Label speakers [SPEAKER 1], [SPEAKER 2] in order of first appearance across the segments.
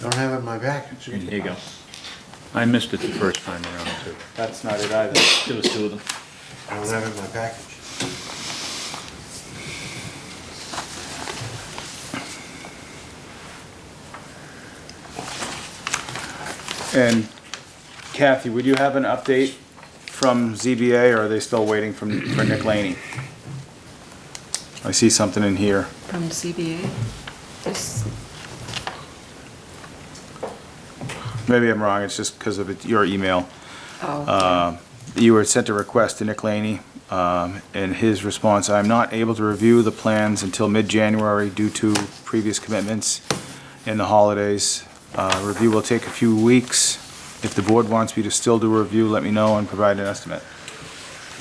[SPEAKER 1] Don't have it in my package.
[SPEAKER 2] Here you go. I missed it the first time around too.
[SPEAKER 3] That's not it either.
[SPEAKER 2] There was two of them.
[SPEAKER 1] I don't have it in my package.
[SPEAKER 3] And Kathy, would you have an update from ZBA, or are they still waiting from, for Nick Laney? I see something in here.
[SPEAKER 4] From CBA? This,
[SPEAKER 3] Maybe I'm wrong, it's just because of it- your email. Uh,
[SPEAKER 4] oh,
[SPEAKER 3] You were sent a request to Nick Laney, um, and his response, "I'm not able to review the plans until mid-January due to previous commitments and the holidays. Uh, Review will take a few weeks. If the board wants me to still do a review, let me know and provide an estimate."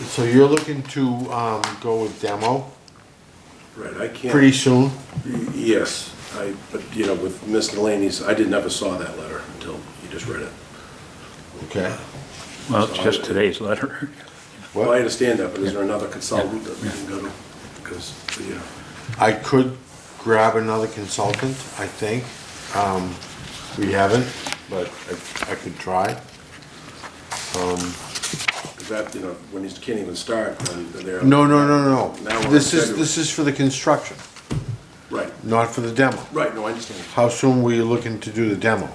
[SPEAKER 1] So you're looking to, um, go with demo
[SPEAKER 5] Right, I can't.
[SPEAKER 1] pretty soon?
[SPEAKER 5] Y- Yes, I, but, you know, with Ms. Delaney's, I didn't ever saw that letter until you just read it.
[SPEAKER 1] Okay.
[SPEAKER 2] Well, it's just today's letter.
[SPEAKER 5] Well, I
[SPEAKER 1] Well,
[SPEAKER 5] understand that, but is there another consultant that we can go to? Because, you know,
[SPEAKER 1] I could grab another consultant, I think. Um, we haven't, but I, I could try.
[SPEAKER 5] 'cause that, you know, when you can't even start, then they're.
[SPEAKER 1] No, no, no,
[SPEAKER 5] Now
[SPEAKER 1] no.
[SPEAKER 5] we're
[SPEAKER 1] This is,
[SPEAKER 5] in
[SPEAKER 1] this is for the construction,
[SPEAKER 5] Right,
[SPEAKER 1] not for the demo.
[SPEAKER 5] right, no, I understand.
[SPEAKER 1] How soon were you looking to do the demo?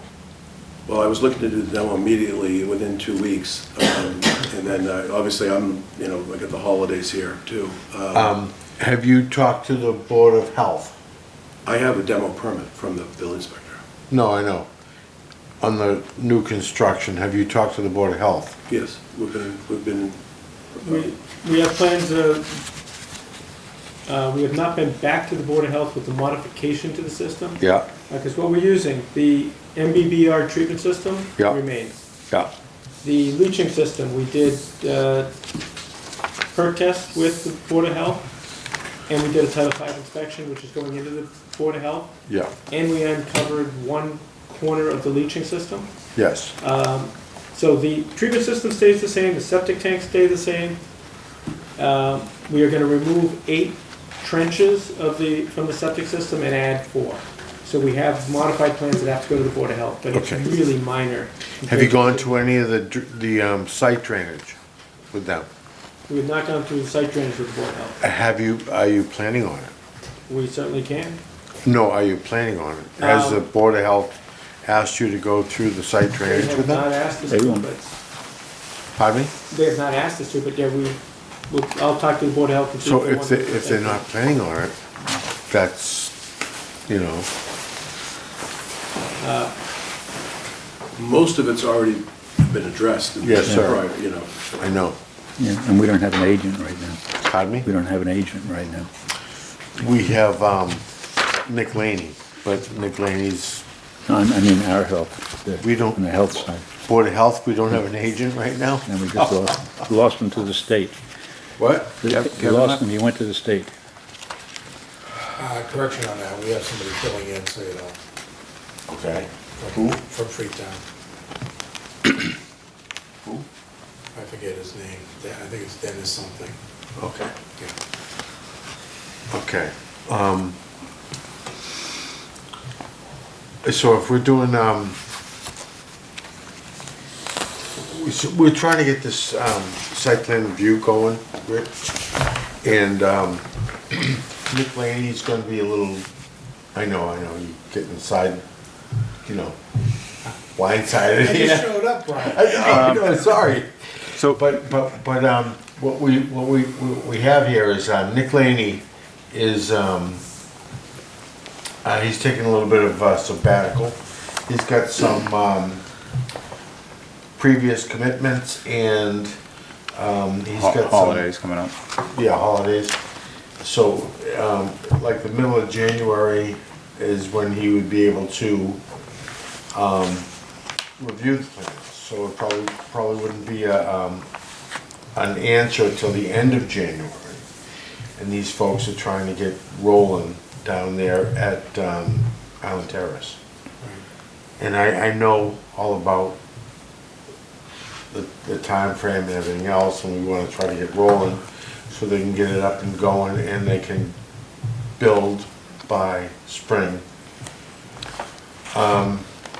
[SPEAKER 5] Well, I was looking to do the demo immediately, within two weeks. um, And then, uh, obviously, I'm, you know, I got the holidays here, too. Uh,
[SPEAKER 1] Have you talked to the Board of Health?
[SPEAKER 5] I have a demo permit from the building inspector.
[SPEAKER 1] No, I know. On the new construction, have you talked to the Board of Health?
[SPEAKER 5] Yes, we've been, we've been, uh,
[SPEAKER 6] We, we have plans, uh, uh, we have not been back to the Board of Health with the modification to the system.
[SPEAKER 1] Yeah,
[SPEAKER 6] Because what we're using, the MBBR treatment system
[SPEAKER 1] Yeah.
[SPEAKER 6] remains.
[SPEAKER 1] yeah.
[SPEAKER 6] The leaching system, we did, uh, perk test with the Board of Health, and we did a Title V inspection, which is going into the Board of Health,
[SPEAKER 1] Yeah,
[SPEAKER 6] and we uncovered one corner of the leaching system.
[SPEAKER 1] yes.
[SPEAKER 6] Um, So the treatment system stays the same, the septic tanks stay the same. Um, We are gonna remove eight trenches of the, from the septic system and add four. So we have modified plans that have to go to the Board of Health, but it's
[SPEAKER 1] Okay.
[SPEAKER 6] really minor.
[SPEAKER 1] Have you
[SPEAKER 6] compared
[SPEAKER 1] gone to any of the, dr- the um, site drainage with them?
[SPEAKER 6] We have not gone through the site drainage with the Board of Health.
[SPEAKER 1] Have you, are you planning on it?
[SPEAKER 6] We certainly can.
[SPEAKER 1] No, are you planning on it? Has the
[SPEAKER 6] Um,
[SPEAKER 1] Board of Health asked you to go through the site
[SPEAKER 6] They
[SPEAKER 1] drainage with
[SPEAKER 6] have not
[SPEAKER 1] them?
[SPEAKER 6] asked us
[SPEAKER 2] They
[SPEAKER 6] to,
[SPEAKER 2] won't.
[SPEAKER 6] but,
[SPEAKER 1] Pardon me?
[SPEAKER 6] they have not asked us to, but yeah, we, we'll- I'll talk to the Board of Health. and see
[SPEAKER 1] So
[SPEAKER 6] they
[SPEAKER 1] if
[SPEAKER 6] want
[SPEAKER 1] they,
[SPEAKER 6] to-
[SPEAKER 1] if they're not planning on it, that's, you know,
[SPEAKER 5] most of it's already been addressed. in the
[SPEAKER 1] Yes, sir.
[SPEAKER 5] prior, You know,
[SPEAKER 1] I know.
[SPEAKER 2] Yeah, and we don't have an agent right now.
[SPEAKER 1] Pardon me?
[SPEAKER 2] We don't have an agent right now.
[SPEAKER 1] We have, um, Nick Laney, but Nick Laney's
[SPEAKER 2] No, I I mean, our health. the-
[SPEAKER 1] We don't-
[SPEAKER 2] On the health side.
[SPEAKER 1] Board of Health, we don't have an agent right now?
[SPEAKER 2] And we
[SPEAKER 1] Oh.
[SPEAKER 2] just lost, lost him to the state.
[SPEAKER 1] What?
[SPEAKER 2] We lost him, he went to the state.
[SPEAKER 7] Uh, correction on that, we have somebody filling in, so you know,
[SPEAKER 1] Okay.
[SPEAKER 7] from, from Freetown. Who? I forget his name, Dan- I think it's Dennis something,
[SPEAKER 1] Okay.
[SPEAKER 7] yeah.
[SPEAKER 1] Okay. um, So if we're doing, um, we s- we're trying to get this um, site plan review going, Rick. And um, Nick Laney's gonna be a little, I know, I know, you get inside, you know, blindsided.
[SPEAKER 7] I just
[SPEAKER 1] Yeah.
[SPEAKER 7] showed up, Brian.
[SPEAKER 1] I know, sorry.
[SPEAKER 3] So,
[SPEAKER 1] But, but, but, um, what we, what we, what we have here is, uh, Nick Laney is, um, uh, he's taking a little bit of uh, sabbatical. He's got some, um, previous commitments and, um, he's got some.
[SPEAKER 3] Holidays coming up.
[SPEAKER 1] Yeah, holidays. So, um, like the middle of January is when he would be able to, um, review the plans. So it probably, probably wouldn't be a, um, an answer till the end of January. And these folks are trying to get rolling down there at, um, Island Terrace. And I, I know all about the, the timeframe and everything else, and we wanna try to get rolling so they can get it up and going and they can build by spring. Um,